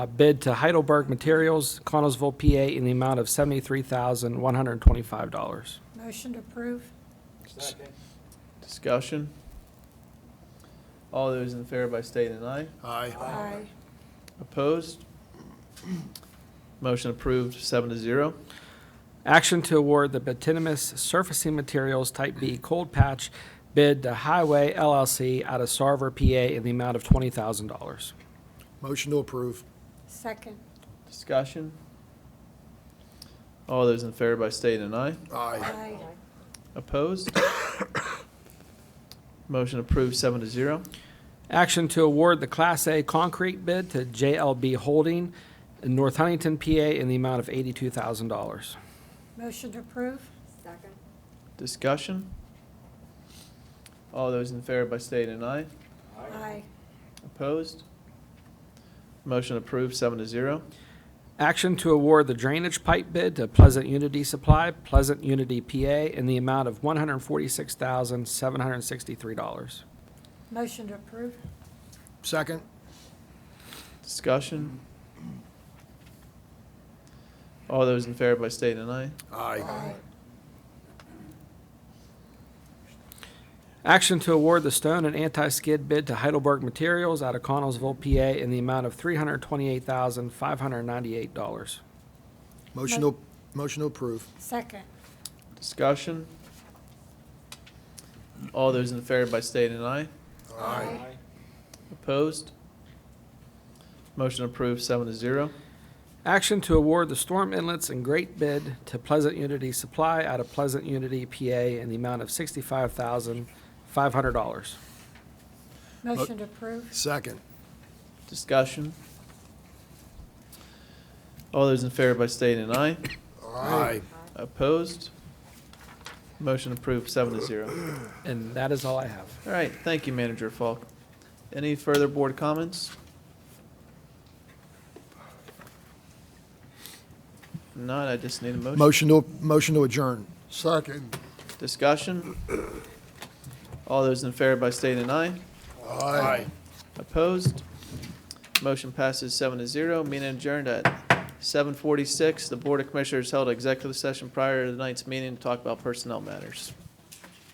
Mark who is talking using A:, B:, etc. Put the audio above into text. A: a bid to Heidelberg Materials, Connellsville, PA, in the amount of $73,125.
B: Motion to approve.
C: Discussion? All those in favor by state and I.
D: Aye.
B: Aye.
C: Opposed? Motion approved, seven to zero.
A: Action to award the Batinimus Surfacing Materials Type B Cold Patch bid to Highway LLC out of Sarver, PA, in the amount of $20,000.
D: Motion to approve.
B: Second.
C: Discussion? All those in favor by state and I.
D: Aye.
B: Aye.
C: Opposed? Motion approved, seven to zero.
A: Action to award the Class A concrete bid to JLB Holding in North Huntington, PA, in the amount of $82,000.
B: Motion to approve.
E: Second.
C: Discussion? All those in favor by state and I.
B: Aye.
C: Opposed? Motion approved, seven to zero.
A: Action to award the drainage pipe bid to Pleasant Unity Supply, Pleasant Unity, PA, in the amount of $146,763.
B: Motion to approve.
D: Second.
C: Discussion? All those in favor by state and I.
D: Aye.
A: Action to award the stone and anti-skid bid to Heidelberg Materials out of Connellsville, PA, in the amount of $328,598.
D: Motion to, motion to approve.
B: Second.
C: Discussion? All those in favor by state and I.
D: Aye.
C: Opposed? Motion approved, seven to zero.
A: Action to award the storm inlets and grate bid to Pleasant Unity Supply out of Pleasant Unity, PA, in the amount of $65,500.
B: Motion to approve.
D: Second.
C: Discussion? All those in favor by state and I.
D: Aye.
C: Opposed? Motion approved, seven to zero.
A: And that is all I have.
C: All right, thank you, Manager Falk. Any further board comments? If Not, I just need a motion.
D: Motion to, motion to adjourn. Second.
C: Discussion? All those in favor by state and I.
D: Aye.
C: Opposed? Motion passes seven to zero. Meeting adjourned at seven forty-six. The Board of Commissioners held executive session prior to tonight's meeting to talk about personnel matters.